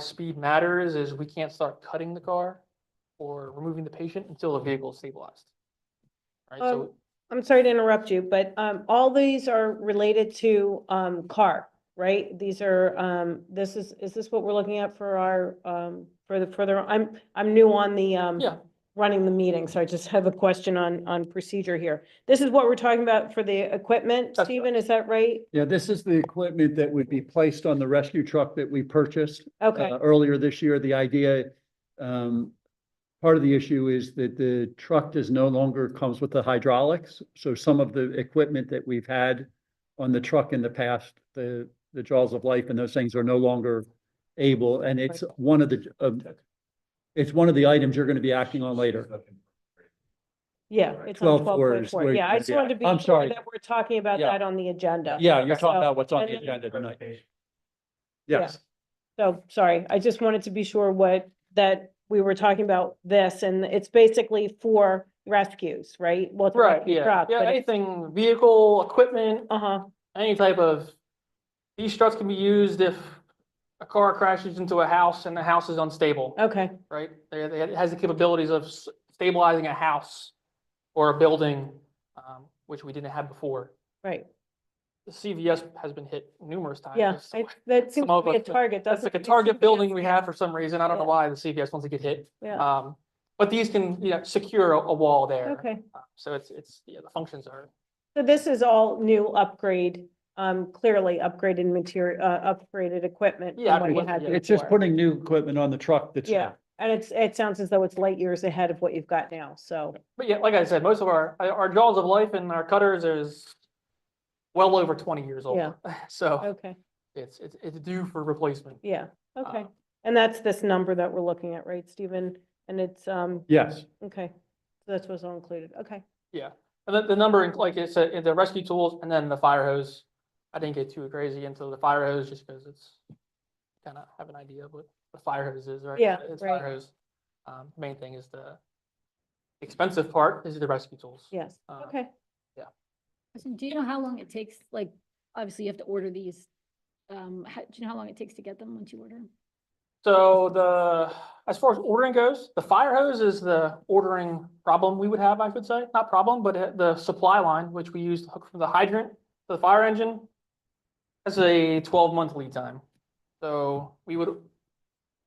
speed matters is we can't start cutting the car or removing the patient until the vehicle is stabilized. Right, so, Mm-hmm. Um, I'm sorry to interrupt you, but um, all these are related to um, car, right? These are, um, this is, is this what we're looking at for our, um, for the further, I'm, I'm new on the um, yeah, running the meeting, so I just have a question on, on procedure here. This is what we're talking about for the equipment, That's Stephen, is that right? Yeah, this is the equipment that would be placed on the rescue truck that we purchased Okay, uh, earlier this year. The idea, um, part of the issue is that the truck does no longer comes with the hydraulics. So some of the equipment that we've had on the truck in the past, the, the jaws of life and those things are no longer able. And it's one of the, of- it's one of the items you're going to be acting on later. yeah, it's on 12 twelve point words, four, where yeah, you I can just be- wanted to be I'm sure sorry. that we're talking about Yeah. that on the agenda. Yeah, you're So- talking about what's on and the then- agenda tonight. Yeah. Yes. So, sorry, I just wanted to be sure what, that we were talking about this and it's basically for rescues, right? Well, it's a right, rescue yeah, truck, yeah, but it- anything, vehicle, equipment, Uh-huh, any type of. These struts can be used if a car crashes into a house and the house is unstable, okay, right? They, they, it has the capabilities of s- stabilizing a house or a building, um, which we didn't have before. right, The CVS has been hit numerous times. yeah, so- I- that Some seems to of be a us- target, That's like doesn't a it? target building we have for some reason. I don't know Yeah. why the CVS wants to get hit. Yeah, Um, but these can, you know, secure a, a wall there. okay, Uh, So it's, it's, yeah, the functions are, so this is all new upgrade, um, clearly upgraded material, uh, upgraded equipment Yeah, from what you absolutely, had yeah. before. It's just putting new equipment on the truck that's. Yeah, and it's, it sounds as though it's light years ahead of what you've got now, so, but yeah, like I said, most of our, our jaws of life and our cutters is well over twenty years old. Yeah. Oh. So okay, it's, it's, it's due for replacement. yeah, okay. Um, And that's this number that we're looking at, right, Stephen? And it's, um, Yes. Okay, so that's what's all included, okay. And then the number, in- like it's, uh, the rescue tools and then the fire hose. I didn't get too crazy into the fire hose just because it's kind of have an idea of what the fire hose is, right? Yeah, It's right. fire hose. Um, main thing is the expensive part is the rescue tools. Yes, Uh, okay. So do you know how long it takes, like, obviously you have to order these, um, how, do you know how long it takes to get them once you order? 'em? So the, as far as ordering goes, the fire hose is the ordering problem we would have, I would say, not problem, but uh, the supply line, which we use to hook from the hydrant to the fire engine. That's a twelve month lead time. So we would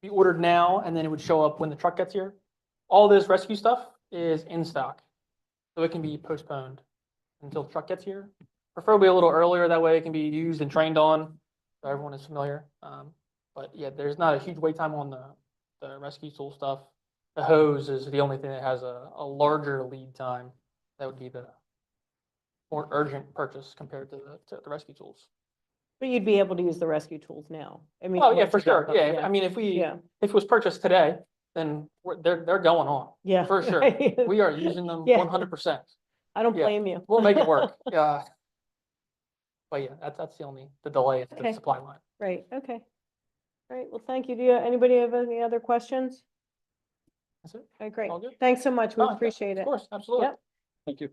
be ordered now and then it would show up when the truck gets here. All this rescue stuff is in stock. So it can be postponed until the truck gets here. Preferably a little earlier, that way it can be used and trained on, so everyone is familiar. Um, but yeah, there's not a huge wait time on the, the rescue tool stuff. The hose is the only thing that has a, a larger lead time. That would be the more urgent purchase compared to the, to the rescue tools. But you'd be able to use the rescue tools now. I mean, Oh, yeah, once for you got sure. them, Yeah, I mean, if we, Yeah, if it was purchased today, then we're, they're, they're going on. yeah. for sure. right. We are using them Yeah. one hundred percent. I don't yeah. blame you. We'll make it work. Yeah. But yeah, that's, that's the only, the delay is the Okay. supply line. Right, okay. All right, well, thank you. Do you, anybody have any other questions? That's it. Okay, great. All good. Thanks so much. We Oh, yeah, appreciate Of it. course, absolutely. Yep. Thank you.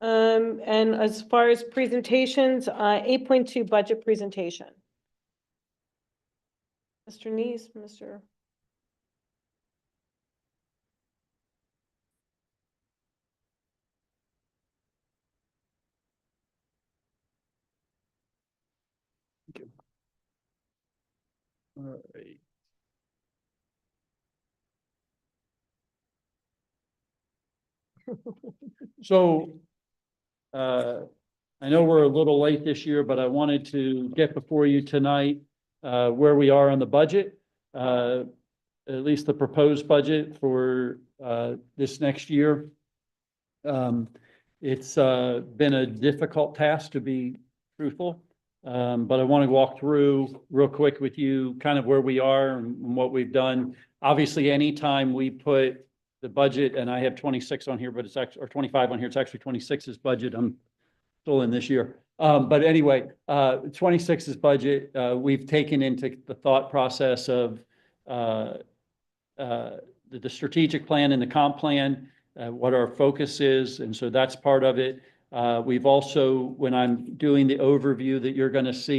Um, and as far as presentations, uh, eight point two budget presentation. Mr. Neese, Mr. All right. So, uh, I know we're a little late this year, but I wanted to get before you tonight, uh, where we are on the budget. Uh, at least the proposed budget for, uh, this next year. Um, it's, uh, been a difficult task to be truthful. Um, but I want to walk through real quick with you kind of where we are and what we've done. Obviously, anytime we put the budget, and I have twenty-six on here, but it's actually, or twenty-five on here, it's actually 26 is budget. I'm still in this year. Um, but anyway, uh, 26 is budget, uh, we've taken into the thought process of, uh, uh, the, the strategic plan and the comp plan, uh, what our focus is, and so that's part of it. Uh, We've also, when I'm doing the overview that you're going to see